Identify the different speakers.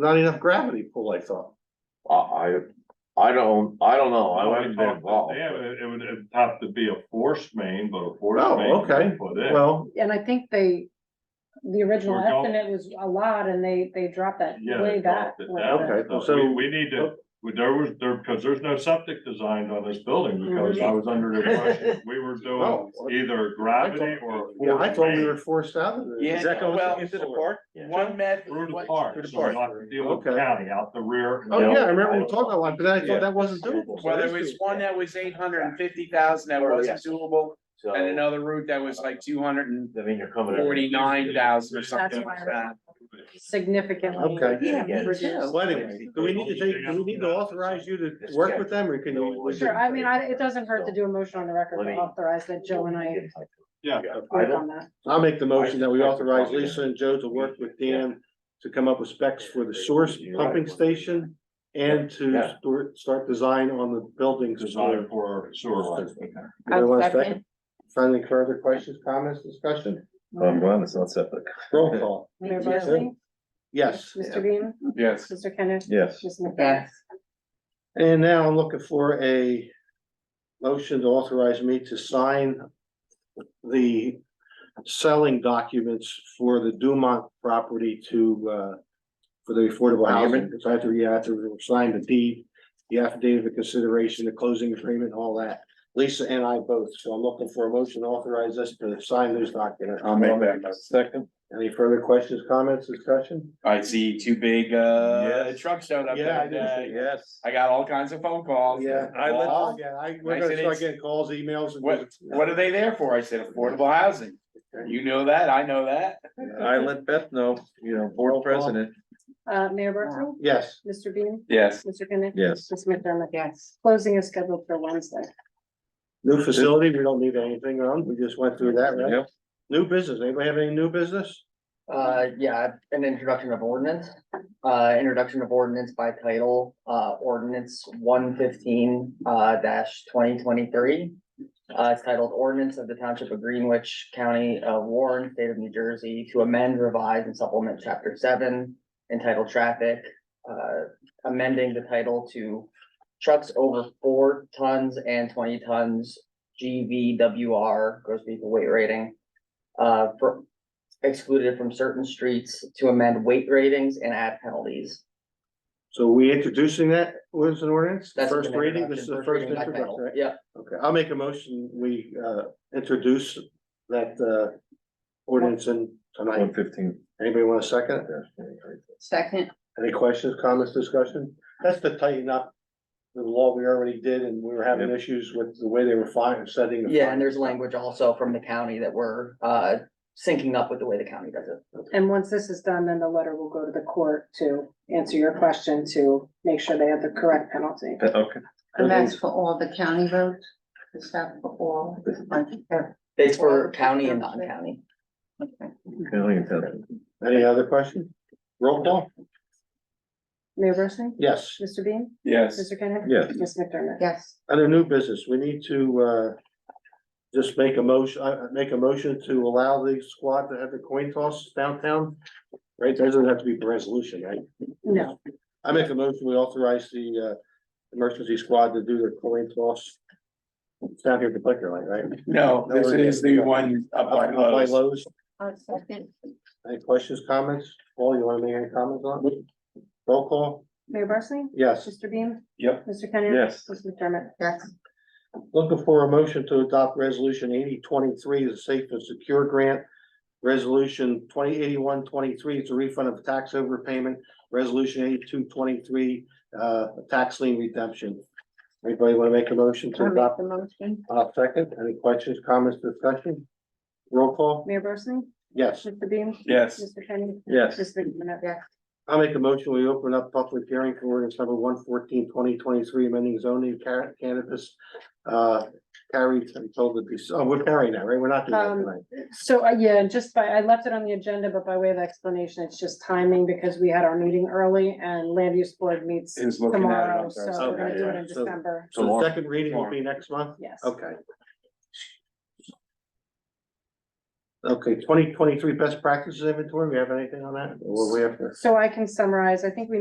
Speaker 1: Not enough gravity pull, I thought.
Speaker 2: I, I, I don't, I don't know,
Speaker 1: Oh,
Speaker 2: I
Speaker 3: Well,
Speaker 2: haven't been involved.
Speaker 3: Yeah, it it would it'd have to be a force main, but a force
Speaker 1: Oh,
Speaker 3: main.
Speaker 1: okay.
Speaker 3: you Put in,
Speaker 1: Well,
Speaker 4: And I think they, the original
Speaker 3: We're going-
Speaker 4: estimate was a lot and they, they dropped that
Speaker 3: yeah.
Speaker 4: way
Speaker 3: they
Speaker 4: back.
Speaker 3: dropped it
Speaker 4: when
Speaker 3: down.
Speaker 4: the-
Speaker 1: Okay,
Speaker 3: So
Speaker 1: so- oh.
Speaker 3: we, we need to, we- there was, there, because there's no septic designed on this building, because
Speaker 4: Mm-hmm.
Speaker 3: I was under the impression we were doing
Speaker 1: Oh, well,
Speaker 3: either
Speaker 1: I
Speaker 3: gravity or
Speaker 1: thought,
Speaker 3: a
Speaker 1: yeah, I
Speaker 3: force
Speaker 1: thought we
Speaker 3: main
Speaker 1: were forced out of it.
Speaker 5: Yeah,
Speaker 6: Does that go
Speaker 5: well,
Speaker 6: into the
Speaker 5: sort of.
Speaker 6: park?
Speaker 5: One meth.
Speaker 3: through the
Speaker 5: one-
Speaker 3: park,
Speaker 5: through the
Speaker 3: so
Speaker 5: park.
Speaker 3: not to deal with
Speaker 1: Okay.
Speaker 3: county out the rear.
Speaker 1: Oh, yeah, I remember we talked about, it, but then I
Speaker 6: Yeah.
Speaker 1: thought that wasn't doable. so
Speaker 5: Well, there
Speaker 1: that's
Speaker 5: was
Speaker 1: doable.
Speaker 5: one that was eight hundred and fifty thousand that
Speaker 6: Oh,
Speaker 5: wasn't doable,
Speaker 6: So,
Speaker 5: and another route that was like two hundred and
Speaker 6: I mean, you're coming. up-
Speaker 5: forty-nine thousand or something
Speaker 4: That's
Speaker 5: like
Speaker 4: why-
Speaker 5: that.
Speaker 4: Significantly.
Speaker 1: Okay.
Speaker 6: Yeah, me
Speaker 4: reduced.
Speaker 1: Yeah, well, anyway, do we need to take, do we need to authorize you to work with them or can you?
Speaker 4: Sure, I mean, I, it doesn't hurt to do a motion on the record
Speaker 6: Let
Speaker 4: to
Speaker 6: me-
Speaker 4: authorize that Joe and I
Speaker 3: Yeah.
Speaker 6: I
Speaker 4: work
Speaker 6: don't,
Speaker 4: on that.
Speaker 1: I'll make the motion that we authorize Lisa and Joe to work with Dan to come up with specs for the source pumping station and to start, start design on the buildings.
Speaker 3: Designed for sewer lines.
Speaker 1: Anyone want a second? Friendly further questions, comments, discussion, um,
Speaker 6: I'm glad it's not septic.
Speaker 1: roll call, Yeah.
Speaker 4: Mayor Barsley?
Speaker 1: yes.
Speaker 4: Mr. Bean?
Speaker 5: Yes.
Speaker 4: Mr. Kenneth?
Speaker 6: Yes.
Speaker 4: Ms. McDaniel?
Speaker 1: And now I'm looking for a motion to authorize me to sign the selling documents for the Dumont property to, uh, for the affordable housing, because I have to, yeah, I have to sign the deed, the affidavit of consideration, the closing agreement, all that. Lisa and I both, so I'm looking for a motion to authorize us to sign those documents.
Speaker 5: I'll make that.
Speaker 6: Second.
Speaker 1: Any further questions, comments, discussion?
Speaker 5: I see two big, uh,
Speaker 6: Yes.
Speaker 5: trucks showed up
Speaker 1: Yeah, I
Speaker 5: that day.
Speaker 6: Uh, Yes.
Speaker 5: I got all kinds of phone calls.
Speaker 1: Yeah.
Speaker 6: I let-
Speaker 1: Oh, Yeah, I, we're
Speaker 5: I
Speaker 1: gonna
Speaker 5: said
Speaker 1: start
Speaker 5: it's-
Speaker 1: getting calls, emails. and-
Speaker 5: What, what are they there for? I said affordable housing. You know that, I know that.
Speaker 6: Uh, I let Beth know, you know, board president,
Speaker 4: Uh, Mayor Barsley?
Speaker 1: Yes.
Speaker 4: Mr. Bean?
Speaker 5: Yes.
Speaker 4: Mr. Kenneth?
Speaker 6: yes.
Speaker 4: Ms. McDermott? Yes. Closing is scheduled for Wednesday.
Speaker 1: New facility, we don't need anything on, we just went through that, right?
Speaker 6: Yep.
Speaker 1: New business, anybody have any new business?
Speaker 7: Uh, yeah, an introduction of ordinance, uh, introduction of ordinance by title, uh, ordinance one fifteen, uh, dash twenty twenty-three. Uh, it's titled ordinance of the Township of Greenwich County of Warren, State of New Jersey, to amend, revise, and supplement chapter seven entitled traffic, uh, amending the title to trucks over four tons and twenty tons, GVWR, gross vehicle weight rating. Uh, for excluded from certain streets to amend weight ratings and add penalties.
Speaker 1: So we introducing that was an ordinance,
Speaker 7: That's
Speaker 1: first
Speaker 7: an
Speaker 1: reading, this is the first
Speaker 7: reading by
Speaker 1: introduction,
Speaker 7: title.
Speaker 1: right?
Speaker 7: Yeah,
Speaker 1: Okay, I'll make a motion, we uh introduce that uh ordinance and tonight,
Speaker 6: One fifteen.
Speaker 1: anybody want a second?
Speaker 8: Second,
Speaker 1: Any questions, comments, discussion? That's to tighten up the law we already did, and we were having issues with the way they were fine, setting. the
Speaker 7: yeah, and there's
Speaker 1: fines.
Speaker 7: language also from the county that we're uh syncing up with the way the county does it.
Speaker 4: And once this is done, then the letter will go to the court to answer your question to make sure they have the correct penalty.
Speaker 6: Okay.
Speaker 8: and that's for all the county roads, is that for all?
Speaker 7: It's for county and non-county.
Speaker 8: Okay.
Speaker 1: Any other question? Roll call?
Speaker 4: Mayor Barsley?
Speaker 1: Yes.
Speaker 4: Mr. Bean?
Speaker 5: Yes.
Speaker 4: Mr. Kenneth?
Speaker 6: Yes.
Speaker 4: Ms. McDermott?
Speaker 8: Yes,
Speaker 1: Under new business, we need to, uh, just make a motion, uh, make a motion to allow the squad to have the coin toss downtown. Right, That doesn't have to be a resolution, right?
Speaker 4: No,
Speaker 1: I make a motion, we authorize the, uh, emergency squad to do their coin toss. It's down here at the liquor line, right?
Speaker 5: No, this is the one up by
Speaker 1: Up By
Speaker 5: Lowe's.
Speaker 1: Lowe's,
Speaker 8: I'll second,
Speaker 1: any questions, comments? Paul, you wanna make any comments on? it? Roll call,
Speaker 4: Mayor Barsley?
Speaker 1: yes.
Speaker 4: Mr. Bean?
Speaker 5: Yep.
Speaker 4: Mr. Kenneth?
Speaker 6: Yes.
Speaker 4: Ms. McDermott?
Speaker 8: yes,
Speaker 1: Looking for a motion to adopt resolution eighty twenty-three, the Safe and Secure Grant. Resolution twenty eighty-one twenty-three, it's a refund of tax overpayment. Resolution eighty-two twenty-three, uh, tax lien redemption. Anybody want to make a motion to
Speaker 8: I'll make
Speaker 1: adopt?
Speaker 8: the motion,
Speaker 1: I'll second. Any questions, comments, discussion? Roll call?
Speaker 4: Mayor Barsley?
Speaker 1: Yes.
Speaker 4: Mr. Bean?
Speaker 5: Yes.
Speaker 4: Mr. Kenneth?
Speaker 6: Yes.
Speaker 4: Ms. McDermott?
Speaker 8: yes,
Speaker 1: I'll make a motion, we open up public hearing for ordinance number 114-2023, amending zoning ca- cannabis. Uh, carried until the, Dec- oh, we're carrying that, right? We're not doing that
Speaker 4: Um,
Speaker 1: tonight.
Speaker 4: So, uh, yeah, just by, I left it on the agenda, but by way of explanation, it's just timing because we had our meeting early and land use board meets
Speaker 5: Is looking at it.
Speaker 4: tomorrow,
Speaker 5: on
Speaker 4: so
Speaker 5: Thursday.
Speaker 4: we're gonna do it in
Speaker 1: Okay, so-
Speaker 4: December,
Speaker 1: So the second reading will be next month?
Speaker 4: yes.
Speaker 1: Okay. Okay, twenty twenty-three best practices inventory, we have anything on that? Or we have to?
Speaker 4: So I can summarize, I think we